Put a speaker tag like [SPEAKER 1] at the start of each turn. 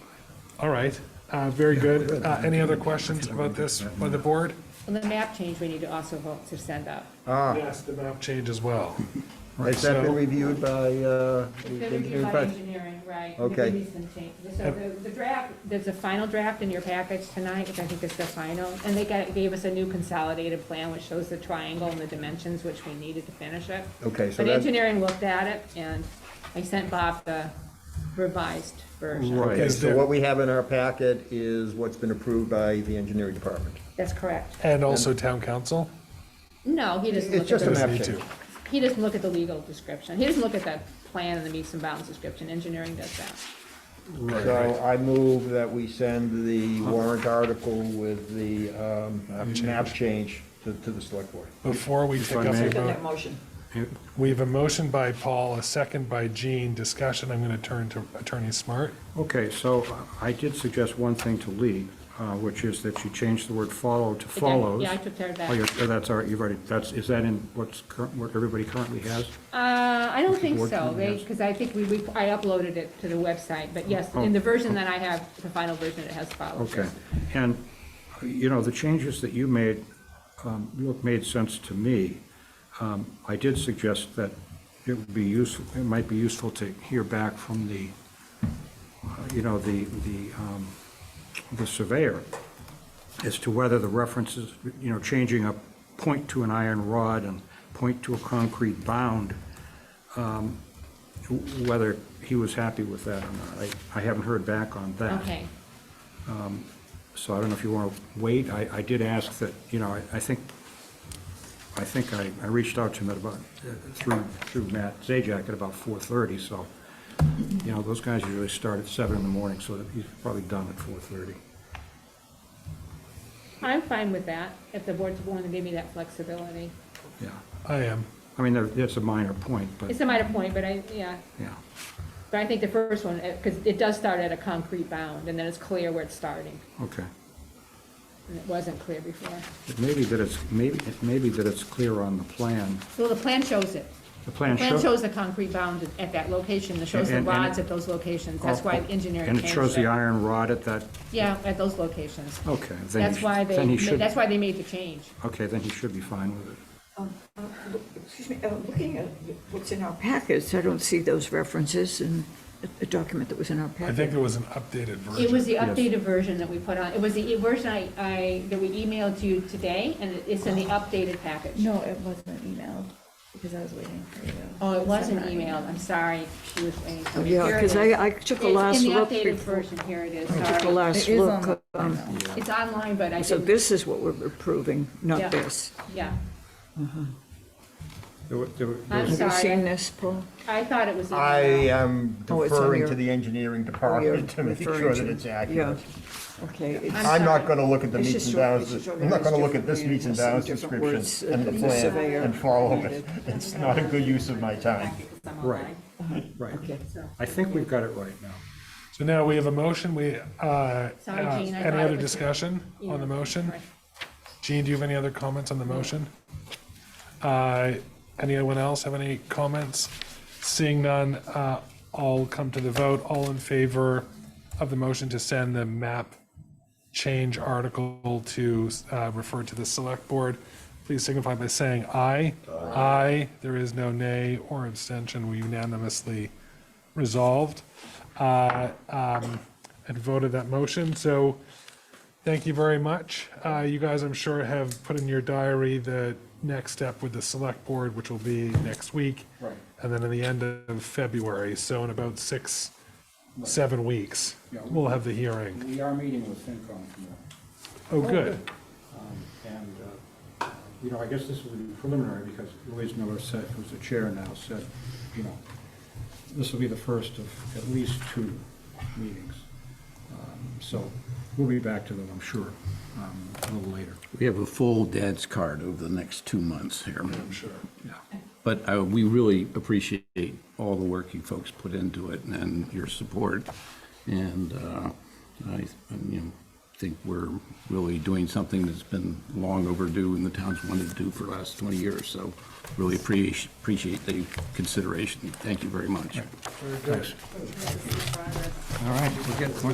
[SPEAKER 1] All right, uh, very good. Uh, Any other questions about this by the board?
[SPEAKER 2] Well, the map change, we need to also vote to send up.
[SPEAKER 3] Uh,
[SPEAKER 1] Yes, the map change as well.
[SPEAKER 3] Has that
[SPEAKER 1] So-
[SPEAKER 3] been reviewed by, uh?
[SPEAKER 2] The review by engineering, right. and
[SPEAKER 3] Okay.
[SPEAKER 2] we need some changes. So the, the draft, there's a final draft in your package tonight, which I think is the final. And they got, gave us a new consolidated plan, which shows the triangle and the dimensions, which we needed to finish it.
[SPEAKER 3] Okay, so
[SPEAKER 2] But
[SPEAKER 3] that-
[SPEAKER 2] engineering looked at it, and I sent Bob the revised version.
[SPEAKER 1] Okay,
[SPEAKER 3] Right, so
[SPEAKER 1] so-
[SPEAKER 3] what we have in our packet is what's been approved by the engineering department.
[SPEAKER 2] That's correct.
[SPEAKER 1] And also town council?
[SPEAKER 2] No, he doesn't
[SPEAKER 3] It's
[SPEAKER 2] look at
[SPEAKER 3] just a
[SPEAKER 2] the,
[SPEAKER 3] map
[SPEAKER 1] Doesn't need
[SPEAKER 3] change.
[SPEAKER 1] to.
[SPEAKER 2] he doesn't look at the legal description. He doesn't look at the plan and the meets and bounds description. Engineering does that.
[SPEAKER 3] So I move that we send the warrant article with the um, map change to, to the select board.
[SPEAKER 1] Before we take up a
[SPEAKER 4] Second that
[SPEAKER 1] vote,
[SPEAKER 4] motion.
[SPEAKER 1] we have a motion by Paul, a second by Gene, discussion, I'm going to turn to Attorney Smart.
[SPEAKER 5] Okay, so I did suggest one thing to Lee, uh, which is that you change the word follow to follows.
[SPEAKER 2] yeah, I took care of that.
[SPEAKER 5] Oh, you're- that's all right, you've already, that's, is that in what's current, what everybody currently has?
[SPEAKER 2] Uh, I don't think
[SPEAKER 5] Board
[SPEAKER 2] so,
[SPEAKER 5] can yes.
[SPEAKER 2] because I think we, we- I uploaded it to the website, but yes, in the version that I have, the final version, it has follows.
[SPEAKER 5] Oh. Okay, and, you know, the changes that you made, um, look, made sense to me. Um, I did suggest that it would be useful, it might be useful to hear back from the, uh, you know, the, the, um, the surveyor as to whether the references, you know, changing a point to an iron rod and point to a concrete bound, um, w- whether he was happy with that or not. I, I haven't heard back on that.
[SPEAKER 2] Okay,
[SPEAKER 5] So I don't know if you want to wait. I, I did ask that, you know, I, I think, I think I, I reached out to him at about, uh, through, through Matt Zajak at about 4:30, so, you know, those guys usually start at seven in the morning, so that he's probably done at 4:30.
[SPEAKER 2] I'm fine with that, if the board's willing to give me that flexibility.
[SPEAKER 5] Yeah.
[SPEAKER 1] I am.
[SPEAKER 5] I mean, there- that's a minor point, but,
[SPEAKER 2] It's a minor point, but I, yeah,
[SPEAKER 5] yeah.
[SPEAKER 2] but I think the first one, because it does start at a concrete bound, and then it's clear where it's starting,
[SPEAKER 5] Okay.
[SPEAKER 2] and it wasn't clear before.
[SPEAKER 5] It may be that it's, maybe, it may be that it's clear on the plan.
[SPEAKER 2] Well, the plan shows it.
[SPEAKER 5] The plan
[SPEAKER 2] Plan
[SPEAKER 5] show-
[SPEAKER 2] shows the concrete bound at that location, it shows the
[SPEAKER 5] And- and-
[SPEAKER 2] rods at those locations, that's why engineering
[SPEAKER 5] Oh, And
[SPEAKER 2] changed
[SPEAKER 5] it shows the iron rod at that,
[SPEAKER 2] Yeah, at those locations.
[SPEAKER 5] okay. then he
[SPEAKER 2] That's
[SPEAKER 5] sh-
[SPEAKER 2] why
[SPEAKER 5] then
[SPEAKER 2] they,
[SPEAKER 5] he should-
[SPEAKER 2] that's why they made the change.
[SPEAKER 5] Okay, then he should be fine with it.
[SPEAKER 4] Excuse me, uh, looking at what's in our packets, I don't see those references in the document that was in our
[SPEAKER 1] I think
[SPEAKER 4] packet.
[SPEAKER 1] there was an updated version.
[SPEAKER 2] It was the updated version that we put on, it was the e- version I, I, that we emailed to you today, and it's in the updated package.
[SPEAKER 6] No, it wasn't emailed, because I was waiting for you.
[SPEAKER 2] Oh, it wasn't
[SPEAKER 6] It's not
[SPEAKER 2] emailed, I'm sorry, she was waiting for
[SPEAKER 4] Oh,
[SPEAKER 2] me.
[SPEAKER 4] yeah,
[SPEAKER 2] Here it
[SPEAKER 4] 'cause I-
[SPEAKER 2] is.
[SPEAKER 4] I took a
[SPEAKER 2] It's
[SPEAKER 4] last look
[SPEAKER 2] In the updated
[SPEAKER 4] before-
[SPEAKER 2] version, here it is,
[SPEAKER 4] The
[SPEAKER 2] sorry.
[SPEAKER 6] It
[SPEAKER 4] last
[SPEAKER 6] is
[SPEAKER 4] look,
[SPEAKER 6] on- I
[SPEAKER 4] um,
[SPEAKER 6] know.
[SPEAKER 2] It's online, but I
[SPEAKER 4] so
[SPEAKER 2] didn't,
[SPEAKER 4] this is what we're approving,
[SPEAKER 2] Yeah.
[SPEAKER 4] not this.
[SPEAKER 2] yeah,
[SPEAKER 5] There were- there were- there
[SPEAKER 2] I'm
[SPEAKER 5] was-
[SPEAKER 4] Have you seen
[SPEAKER 2] sorry,
[SPEAKER 4] this, Paul?
[SPEAKER 2] I thought it was in
[SPEAKER 3] I
[SPEAKER 5] uh,
[SPEAKER 2] there.
[SPEAKER 3] am
[SPEAKER 4] Oh, it's on
[SPEAKER 3] deferring
[SPEAKER 4] your-
[SPEAKER 3] to the engineering
[SPEAKER 4] Oh, you're
[SPEAKER 3] department to make
[SPEAKER 4] referring
[SPEAKER 3] sure
[SPEAKER 4] to-
[SPEAKER 3] that it's accurate.
[SPEAKER 4] Yeah, okay. it's-
[SPEAKER 3] I'm
[SPEAKER 2] sorry.
[SPEAKER 3] not gonna look at the
[SPEAKER 4] It's
[SPEAKER 3] meets
[SPEAKER 4] just
[SPEAKER 3] and
[SPEAKER 4] short-
[SPEAKER 3] bounds,
[SPEAKER 4] it's just
[SPEAKER 3] I'm not gonna look at
[SPEAKER 4] organized
[SPEAKER 3] this meets and bounds
[SPEAKER 4] differently,
[SPEAKER 3] description
[SPEAKER 4] different
[SPEAKER 3] and
[SPEAKER 4] words,
[SPEAKER 3] the
[SPEAKER 4] uh,
[SPEAKER 3] plan
[SPEAKER 4] surveyor
[SPEAKER 3] and follow it.
[SPEAKER 4] needed.
[SPEAKER 3] It's not a good use of my time.
[SPEAKER 2] It's online,
[SPEAKER 5] Right. Right.
[SPEAKER 4] Okay.
[SPEAKER 2] so.
[SPEAKER 5] I think we've got it right now.
[SPEAKER 1] So now we have a motion, we, uh, uh,
[SPEAKER 2] Sorry, Jean, I thought
[SPEAKER 1] any
[SPEAKER 2] it
[SPEAKER 1] other
[SPEAKER 2] was-
[SPEAKER 1] discussion on the
[SPEAKER 2] Yeah,
[SPEAKER 1] motion?
[SPEAKER 2] sorry.
[SPEAKER 1] Gene, do you have any other comments on the motion? Uh, Anyone else have any comments? Seeing none, uh, I'll come to the vote. All in favor of the motion to send the map change article to uh, refer to the select board, please signify by saying aye. Aye. There is no nay or abstention. We unanimously resolved uh, um, and voted that motion. So Thank you very much. Uh, You guys, I'm sure, have put in your diary the next step with the select board, which will be next week. Right. And then in the end of February, so in about six, seven weeks,
[SPEAKER 5] Yeah.
[SPEAKER 1] we'll have the hearing.
[SPEAKER 5] We are meeting with FinCom tomorrow, Um,
[SPEAKER 1] Oh, good.
[SPEAKER 5] and, uh, you know, I guess this will be preliminary, because Louise Miller said, who's the chair now, said, you know, this will be the first of at least two meetings. Um, So we'll be back to them, I'm sure, um, a little later.
[SPEAKER 7] We have a full dad's card over the next two months here.
[SPEAKER 5] Yeah.
[SPEAKER 7] But uh, we really appreciate all the work you folks put into it and your support. And uh, I, you know, think we're really doing something that's been long overdue and the town's wanted to do for the last 20 years. So really appreciate, appreciate the consideration. Thank you very much.
[SPEAKER 5] All right, we'll get, we'll